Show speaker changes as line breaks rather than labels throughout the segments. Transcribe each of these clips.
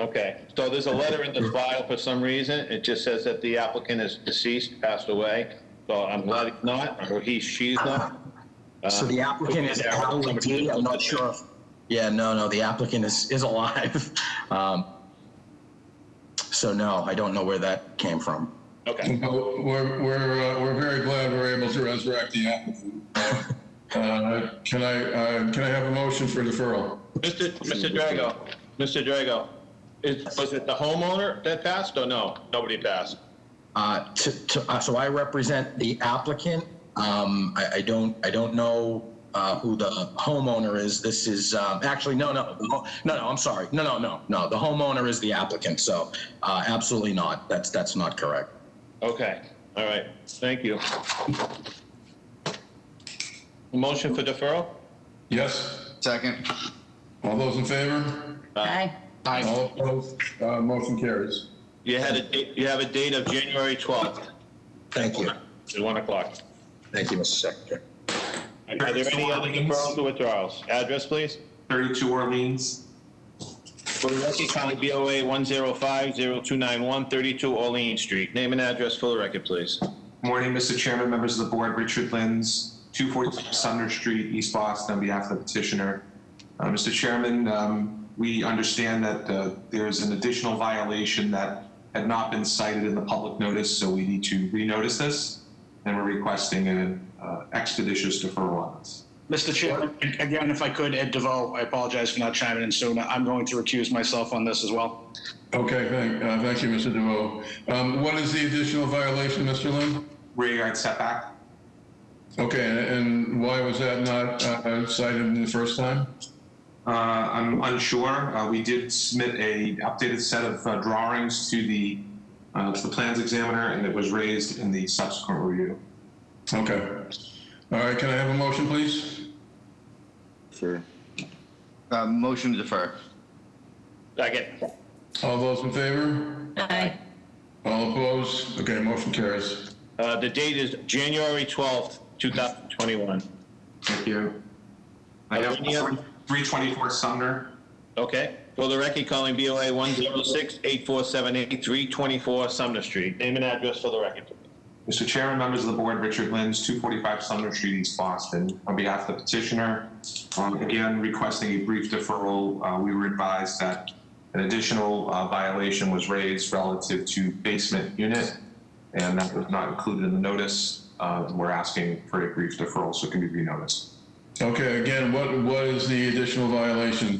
Okay, so there's a letter in the file for some reason, it just says that the applicant is deceased, passed away, so I'm glad it's not, or he, she's not.
So the
Uh,
applicant is
yeah,
Alan
somebody
D.
did
I'm
look
not
at
sure. if- Yeah, no, no, the applicant is, is alive. Um, So no, I don't know where that came from.
it. Okay,
Well, We're, we're, uh, we're very glad we're able to resurrect the applicant. Uh, Can I, uh, can I have a motion for deferral?
Mr. Mr. Drago, Mr. Drago, is, was it the homeowner that passed, or no, nobody passed?
Uh, to- to- uh, So I represent the applicant. Um, I, I don't, I don't know uh, who the homeowner is. This is, um, actually, no, no, the ho- no, no, I'm sorry. No, no, no, no. The homeowner is the applicant, so uh, absolutely not. That's, that's not correct.
Okay, all right, thank you. Motion for deferral?
Yes?
Second.
All those in favor?
Aye.
All opposed? Uh, Motion carries.
You had a, date- you have a date of January 12th,
Thank you.
at 1 o'clock.
Thank you, Mr. Secretary.
Are there any other deferrals or withdrawals? Address, please.
32 Orleans.
Billwatershire County BOA 105-0291, 32 Orleans Street. Name and address for the record, please.
Morning, Mr. Chairman, members of the board. Richard Lins, 242 Sumner Street, East Boston, on behalf of the petitioner. Uh, Mr. Chairman, um, we understand that uh, there is an additional violation that had not been cited in the public notice, so we need to renotice this, and we're requesting an uh, expeditious deferral on this.
Mr. Chairman, again, if I could, Ed DeVoe, I apologize for not chiming in sooner. I'm going to recuse myself on this as well.
Okay, thank, uh, thank you, Mr. DeVoe. Um, What is the additional violation, Mr. Lynn?
Rear yard setback.
Okay, and- and why was that not uh, cited the first time?
Uh, I'm unsure. Uh, We did submit a updated set of uh, drawings to the, uh, to the plans examiner, and it was raised in the subsequent review.
Okay. All right, can I have a motion, please?
Sure. Uh, motion to defer.
Second.
All those in favor?
Aye.
All opposed? Okay, motion carries.
Uh, The date is January 12th, 2021.
Thank you. I
Are
have
there any other-
324 Sumner.
Okay? For the record, calling BOA 106-8478, 324 Sumner Street. Name and address for the record.
Mr. Chairman, members of the board, Richard Lins, 245 Sumner Street, East Boston. On behalf of the petitioner, um, again requesting a brief deferral, Uh, we were advised that an additional uh, violation was raised relative to basement unit, and that was not included in the notice. Uh, We're asking for a brief deferral so it can be renoticed.
Okay, again, what, what is the additional violation?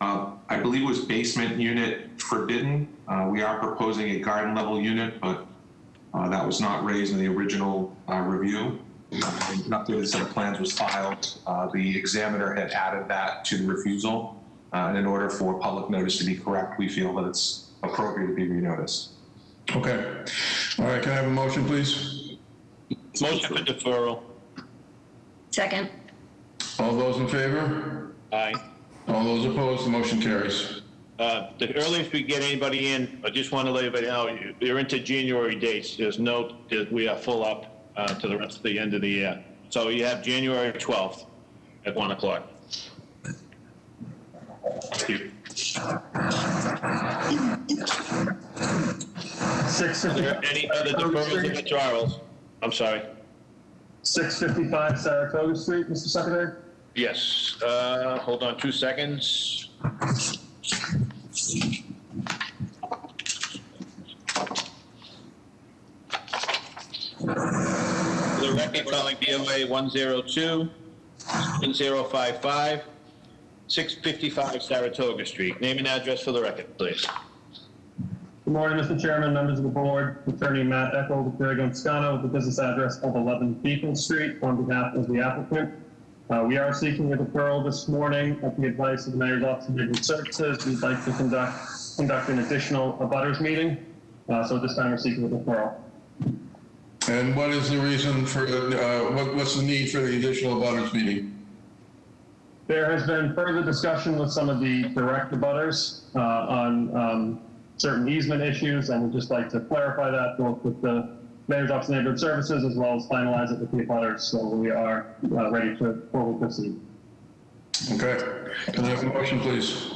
Uh, I believe it was basement unit forbidden. Uh, We are proposing a garden level unit, but uh, that was not raised in the original uh, review. Uh, An updated set of plans was filed. Uh, The examiner had added that to the refusal. Uh, And in order for public notice to be correct, we feel that it's appropriate to be renoticed.
Okay. All right, can I have a motion, please?
Motion for deferral.
Second.
All those in favor?
Aye.
All those opposed, the motion carries.
Uh, The earliest we get anybody in, I just want to let everybody know, you're into January dates. There's no, we are full up uh, to the rest of the end of the year. So you have January 12th at 1 o'clock.
Six
Are there any other deferrals or withdrawals? I'm sorry.
fifty-five Saratoga Street, Mr. Secretary?
Yes, uh, hold on two seconds. For The record calling BOA 102 1055 655 Saratoga Street. Name and address for the record, please.
Good morning, Mr. Chairman, members of the board, Attorney Matt Eckel, with Grego Scano, with the business address of eleven Beacon Street, on behalf of the applicant. Uh, we are seeking a deferral this morning at the advice of the Mayor's Office of Legal Services. We'd like to conduct, conduct an additional abutters meeting, uh, so at this time we're seeking a deferral.
And what is the reason for, uh, what, what's the need for the additional abutters meeting?
There has been further discussion with some of the direct abutters uh, on um, certain easement issues, and we'd just like to clarify that both with the Mayor's Office of Neighborhood Services as well as finalize it with the abutters, so we are uh, ready to forward proceed.
Okay. Can I have a motion, please?